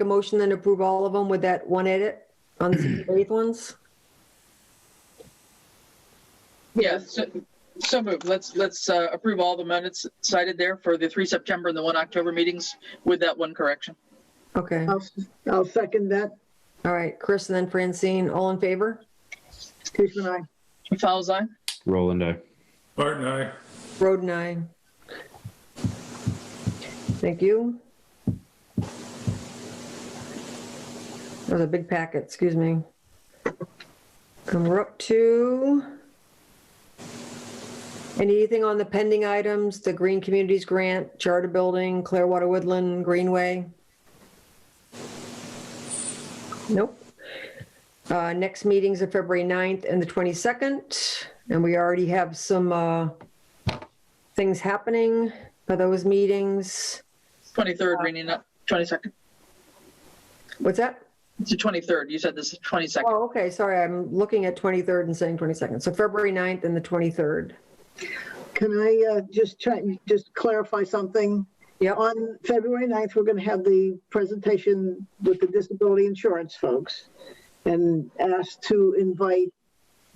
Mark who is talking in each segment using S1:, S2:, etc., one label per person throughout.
S1: a motion then approve all of them with that one edit on the September 8th ones?
S2: Yeah, so, so moved. Let's, let's uh, approve all the minutes cited there for the 3 September and the 1 October meetings with that one correction.
S1: Okay,
S3: I'll, I'll second that.
S1: all right, Chris and then Francine, all in favor?
S3: Tishman, I.
S2: Fowles eye?
S4: Roland, I.
S5: Martin, aye.
S1: Road and I. Thank you. That was a big packet, excuse me. And we're up to anything on the pending items, the Green Communities Grant, Charter Building, Clearwater Woodland, Greenway? Nope. Uh, Next meetings are February 9th and the 22nd, and we already have some uh, things happening for those meetings.
S2: 23rd, rainy night, 22nd.
S1: What's that?
S2: It's the 23rd. You said this is 22nd.
S1: Oh, okay, sorry, I'm looking at 23rd and saying 22nd. So February 9th and the 23rd.
S3: Can I uh, just try, just clarify something?
S1: Yep.
S3: On February 9th, we're going to have the presentation with the disability insurance folks and ask to invite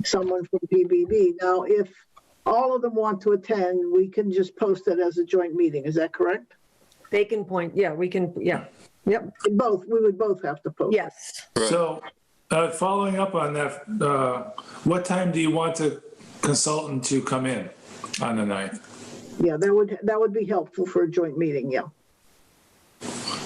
S3: someone from PBB. Now, if all of them want to attend, we can just post it as a joint meeting. Is that correct?
S1: They can point, yeah, we can, yeah, yep,
S3: Both, we would both have to post.
S1: yes.
S5: So, uh, following up on that, uh, what time do you want the consultant to come in on the ninth?
S3: Yeah, that would, that would be helpful for a joint meeting, yeah.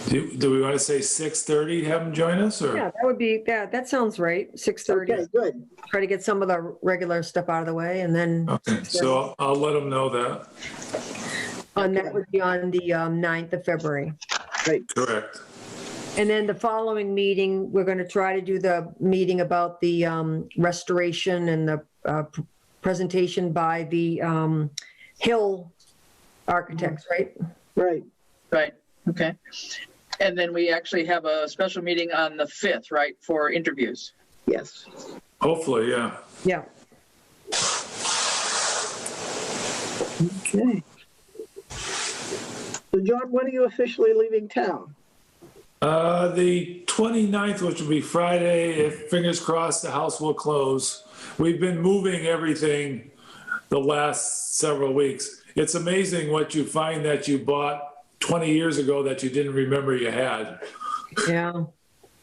S5: Do, do we want to say 6:30, have him join us or?
S1: Yeah, that would be, yeah, that sounds right.
S3: Okay,
S1: 6:30,
S3: good.
S1: try to get some of the regular stuff out of the way and then
S3: Oh,
S5: Okay, so I'll- I'll let him know that.
S1: on that would be on the um, 9th of February.
S5: Correct.
S1: And then the following meeting, we're going to try to do the meeting about the um, restoration and the uh, p- presentation by the um, Hill Architects, right?
S3: Right.
S2: Right, okay. And then we actually have a special meeting on the 5th, right, for interviews.
S3: Yes.
S5: Hopefully, yeah.
S1: Yeah.
S3: Okay. So John, when are you officially leaving town?
S5: Uh, the 29th, which will be Friday, if fingers crossed, the house will close. We've been moving everything the last several weeks. It's amazing what you find that you bought 20 years ago that you didn't remember you had.
S1: Yeah.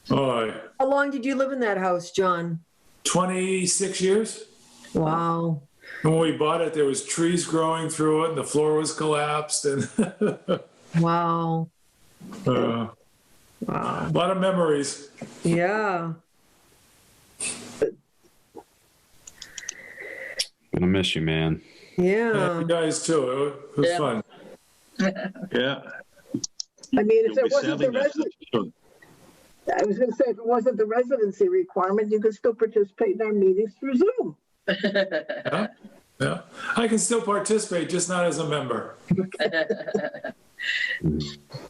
S5: Oh,
S1: How long did you live in that house, John?
S5: 26 years?
S1: Wow.
S5: When we bought it, there was trees growing through it and the floor was collapsed and uh,
S1: Wow.
S5: a
S1: Wow.
S5: lot of memories.
S1: Yeah.
S4: Gonna miss you, man.
S1: Yeah.
S5: You guys too. It was
S2: Yeah.
S5: fun.
S6: Yeah.
S3: I mean, if
S6: You'll
S3: it wasn't
S6: be
S3: the
S6: selling that
S3: resident,
S6: soon.
S3: I was gonna say, if it wasn't the residency requirement, you could still participate in our meetings through Zoom.
S5: Yeah. Yeah. I can still participate, just not as a member.
S4: Mm-hmm.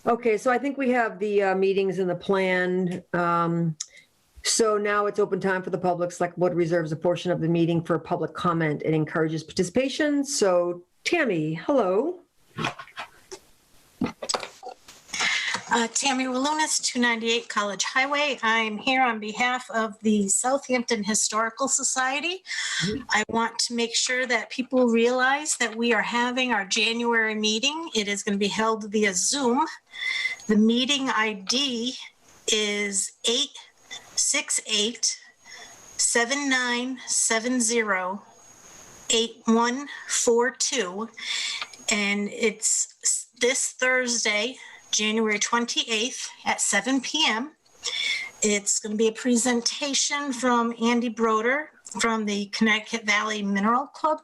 S1: Okay, so I think we have the uh, meetings and the plan. Um, So now it's open time for the public. Select Board reserves a portion of the meeting for public comment. It encourages participation. So Tammy, hello.
S7: Uh, Tammy Walunas, 298 College Highway. I'm here on behalf of the Southampton Historical Society. I want to make sure that people realize that we are having our January meeting. It is going to be held via Zoom. The meeting ID is 868 7970 8142. And it's s- this Thursday, January 28th at 7 PM. It's going to be a presentation from Andy Broder from the Connecticut Valley Mineral Club.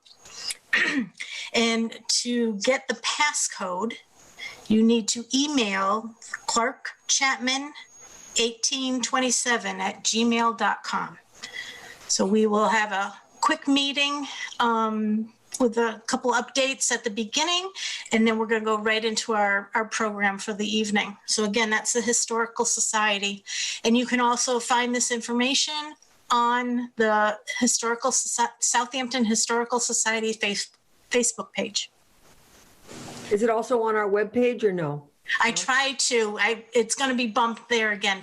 S7: And to get the passcode, you need to email Clark Chapman 1827 at gmail.com. So we will have a quick meeting um, with a couple updates at the beginning, and then we're going to go right into our, our program for the evening. So again, that's the Historical Society. And you can also find this information on the Historical, Soci- Southampton Historical Society face, Facebook page.
S1: Is it also on our webpage or no?
S7: I try to, I, it's going to be bumped there again